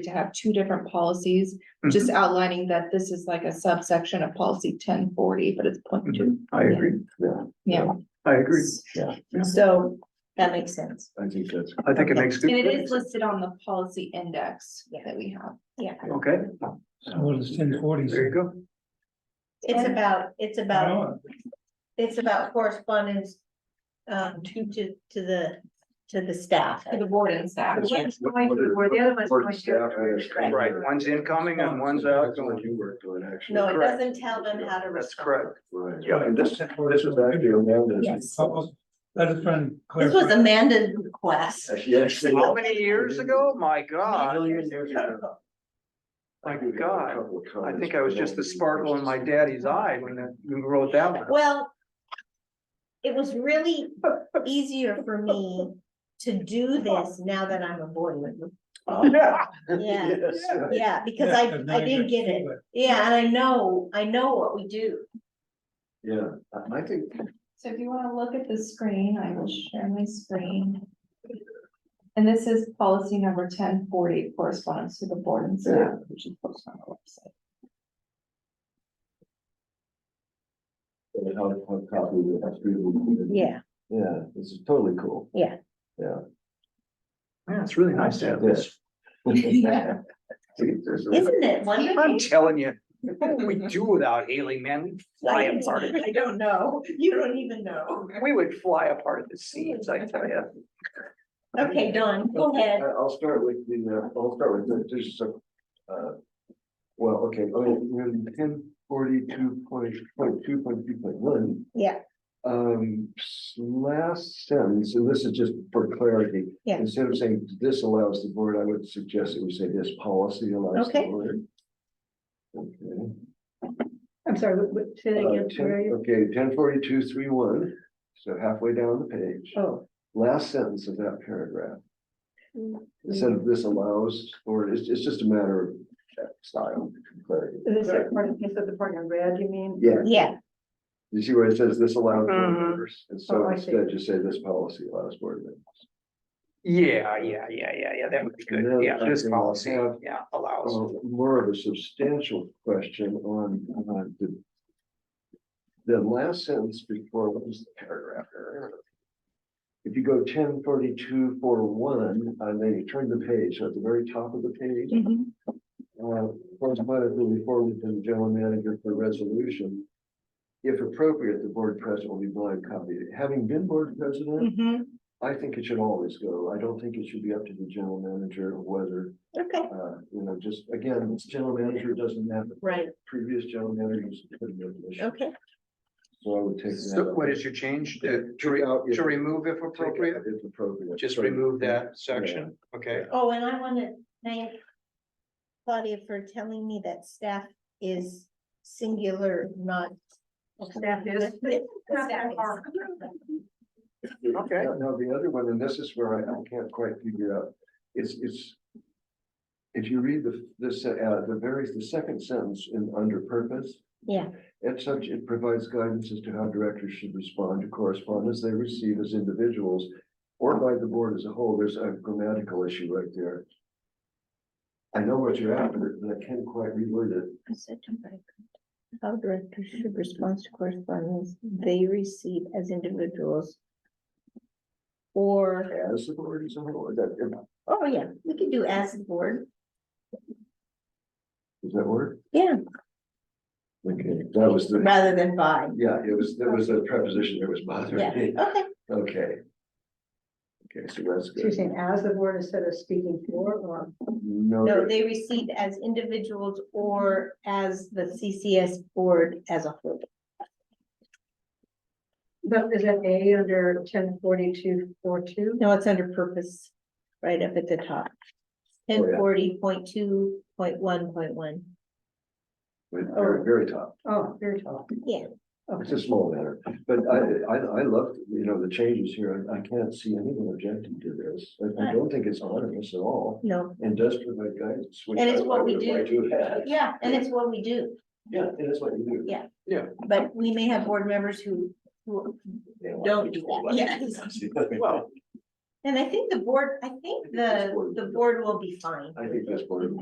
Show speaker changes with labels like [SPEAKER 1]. [SPEAKER 1] to have two different policies, just outlining that this is like a subsection of policy ten forty, but it's
[SPEAKER 2] Mm-hmm.
[SPEAKER 1] point two.
[SPEAKER 3] I agree, yeah,
[SPEAKER 1] Yeah,
[SPEAKER 3] I agree, yeah.
[SPEAKER 1] so that makes sense.
[SPEAKER 2] I think that's.
[SPEAKER 3] I think it makes good.
[SPEAKER 1] And it is
[SPEAKER 3] sense.
[SPEAKER 1] listed on the policy index that we have.
[SPEAKER 3] Okay,
[SPEAKER 4] So what is ten forty?
[SPEAKER 3] there you go.
[SPEAKER 5] It's about, it's
[SPEAKER 3] Oh.
[SPEAKER 5] about, it's about correspondence um to to to the to the staff.
[SPEAKER 1] The board and staff.
[SPEAKER 5] One's going to where the other one's going to-
[SPEAKER 3] Right, one's incoming and one's outgoing.
[SPEAKER 2] You worked on actually.
[SPEAKER 5] No, it
[SPEAKER 3] Correct.
[SPEAKER 5] doesn't tell them how to.
[SPEAKER 3] That's
[SPEAKER 5] respond.
[SPEAKER 3] correct.
[SPEAKER 2] Right.
[SPEAKER 3] Yeah, and this-
[SPEAKER 2] this is actually Amanda's.
[SPEAKER 5] Yes.
[SPEAKER 3] Oh,
[SPEAKER 4] Let us try and
[SPEAKER 5] This was
[SPEAKER 4] clarify.
[SPEAKER 5] Amanda's request.
[SPEAKER 2] Yes.
[SPEAKER 3] How many years ago? My God,
[SPEAKER 2] Million years ago.
[SPEAKER 3] my
[SPEAKER 2] I could give a
[SPEAKER 3] God.
[SPEAKER 2] couple of
[SPEAKER 3] I
[SPEAKER 2] comments,
[SPEAKER 3] think I was
[SPEAKER 2] but
[SPEAKER 3] just the
[SPEAKER 2] don't-
[SPEAKER 3] sparkle in my daddy's eye when that- you wrote that one.
[SPEAKER 5] Well, it was really easier for me to do this now that I'm a board member.
[SPEAKER 2] Yeah.
[SPEAKER 5] Yeah,
[SPEAKER 2] Yes.
[SPEAKER 5] yeah, because I
[SPEAKER 4] Yeah, 'cause now
[SPEAKER 5] I
[SPEAKER 4] you
[SPEAKER 5] didn't get it. Yeah, and I know, I know what we do.
[SPEAKER 2] Yeah, I- I think.
[SPEAKER 1] So if you wanna look at the screen, I will share my screen. And this is policy number ten forty corresponds to the board and staff, which is posted on the website.
[SPEAKER 2] they have a hard copy of it. That's really- Yeah, this is totally cool.
[SPEAKER 3] Yeah, it's really nice to have this.
[SPEAKER 1] Yeah.
[SPEAKER 2] There's a-
[SPEAKER 5] Isn't it
[SPEAKER 3] I'm
[SPEAKER 5] wonderful?
[SPEAKER 3] telling you, what we do without Haley, man, we'd fly apart. at-
[SPEAKER 5] I don't know. You don't even know.
[SPEAKER 3] We would fly apart at the seams, I tell you.
[SPEAKER 5] Okay, Dawn, go ahead.
[SPEAKER 2] I- I'll start with the, uh, I'll start with the, just some, uh, well, okay, I mean, ten forty-two point, point two, point two, point one.
[SPEAKER 5] Yeah.
[SPEAKER 2] Um, s- last sentence, and this is just for clarity.
[SPEAKER 5] Yeah.
[SPEAKER 2] Instead of saying this allows the board, I would suggest that we say this policy allows the
[SPEAKER 5] Okay.
[SPEAKER 2] board. Okay.
[SPEAKER 5] I'm sorry, what, what, say
[SPEAKER 2] Uh, 10 Okay, ten forty-two, three, one, so halfway down the page,
[SPEAKER 5] Oh.
[SPEAKER 2] last sentence of that paragraph.
[SPEAKER 6] Mm-hmm.
[SPEAKER 5] Mm.
[SPEAKER 2] Instead of this allows, or it's, it's just a matter of style, clarity.
[SPEAKER 6] Is that part, you said the part in red, you mean?
[SPEAKER 2] Yeah,
[SPEAKER 5] Yeah,
[SPEAKER 2] you see where it says this allows board
[SPEAKER 3] Mhm.
[SPEAKER 2] members, and so
[SPEAKER 6] Oh, I see.
[SPEAKER 2] instead just say this policy allows board members.
[SPEAKER 3] Yeah, yeah, yeah, yeah, yeah, that would be good.
[SPEAKER 2] Another
[SPEAKER 3] Yeah, this
[SPEAKER 2] thing I
[SPEAKER 3] policy,
[SPEAKER 2] have-
[SPEAKER 3] yeah, allows.
[SPEAKER 2] Uh, More of a substantial question on, on the. The last sentence before, what was the paragraph? there? If you go ten forty-two four one, and then you turn the page, so at the very top of the page.
[SPEAKER 5] Mm-hmm,
[SPEAKER 2] Uh, correspondence will be forwarded to the general manager for resolution. If appropriate, the board president will be blind copied. Having been board president,
[SPEAKER 5] mhm,
[SPEAKER 2] I think it should always go. I don't think it should be up to the general manager of whether
[SPEAKER 5] okay,
[SPEAKER 2] uh, you know, just again, this general manager doesn't have, the
[SPEAKER 5] right,
[SPEAKER 2] previous general manager was put in their position,
[SPEAKER 5] okay,
[SPEAKER 2] so I would take
[SPEAKER 3] So
[SPEAKER 2] that.
[SPEAKER 3] what is your change? To, to
[SPEAKER 2] Take
[SPEAKER 3] re-
[SPEAKER 2] out if-
[SPEAKER 3] to remove if
[SPEAKER 2] take out
[SPEAKER 3] appropriate?
[SPEAKER 2] If appropriate.
[SPEAKER 3] Just
[SPEAKER 2] So-
[SPEAKER 3] remove that section, okay?
[SPEAKER 5] oh, and I wanna thank. Claudia for telling me that staff is singular, not.
[SPEAKER 6] Staff is.
[SPEAKER 5] Staff is.
[SPEAKER 3] Okay.
[SPEAKER 2] Now, now the other one, and this is where I, I can't quite figure out, it's, it's. If you read the, this, uh, the very, the second sentence in under purpose.
[SPEAKER 5] Yeah.
[SPEAKER 2] As such, it provides guidance as to how directors should respond to correspondence they receive as individuals. Or by the board as a whole, there's a grammatical issue right there. I know what you're after, but I can't quite reword it.
[SPEAKER 5] I said to my con- How directors should respond to correspondence they receive as individuals. Or,
[SPEAKER 2] As the board as a whole, is that,
[SPEAKER 5] oh yeah, we could do as the board,
[SPEAKER 2] is that word?
[SPEAKER 5] yeah,
[SPEAKER 2] Okay, that was the,
[SPEAKER 5] rather than by,
[SPEAKER 2] yeah, it was, there was a preposition that was bothering
[SPEAKER 5] yeah,
[SPEAKER 2] me.
[SPEAKER 5] okay.
[SPEAKER 2] Okay. Okay, so that's
[SPEAKER 6] She's
[SPEAKER 2] good.
[SPEAKER 6] saying as the board instead of speaking for or,
[SPEAKER 2] No,
[SPEAKER 5] No, they received as individuals or as the CCS board as a whole.
[SPEAKER 6] but is that A under ten forty-two four two?
[SPEAKER 5] No, it's under purpose, right up at the top.
[SPEAKER 2] yeah.
[SPEAKER 5] Ten forty point two point one point one,
[SPEAKER 2] but very, very top.
[SPEAKER 6] Oh, very tall.
[SPEAKER 5] yeah.
[SPEAKER 2] It's a small matter, but I, I, I love, you know, the changes here. I- I can't see anyone objecting to this. I- I don't think it's onerous at all
[SPEAKER 5] No,
[SPEAKER 2] and does provide guidance. which
[SPEAKER 5] And it's
[SPEAKER 2] I- I
[SPEAKER 5] what we
[SPEAKER 2] would
[SPEAKER 5] do.
[SPEAKER 2] like to have.
[SPEAKER 5] yeah, and it's what we do,
[SPEAKER 2] Yeah, it is what you do.
[SPEAKER 5] Yeah. but we may have board members who, who
[SPEAKER 2] They like
[SPEAKER 5] Don't
[SPEAKER 2] it.
[SPEAKER 5] do that.
[SPEAKER 2] Well,
[SPEAKER 5] And I think the board, I think the, the board will be fine.
[SPEAKER 2] I think that's part of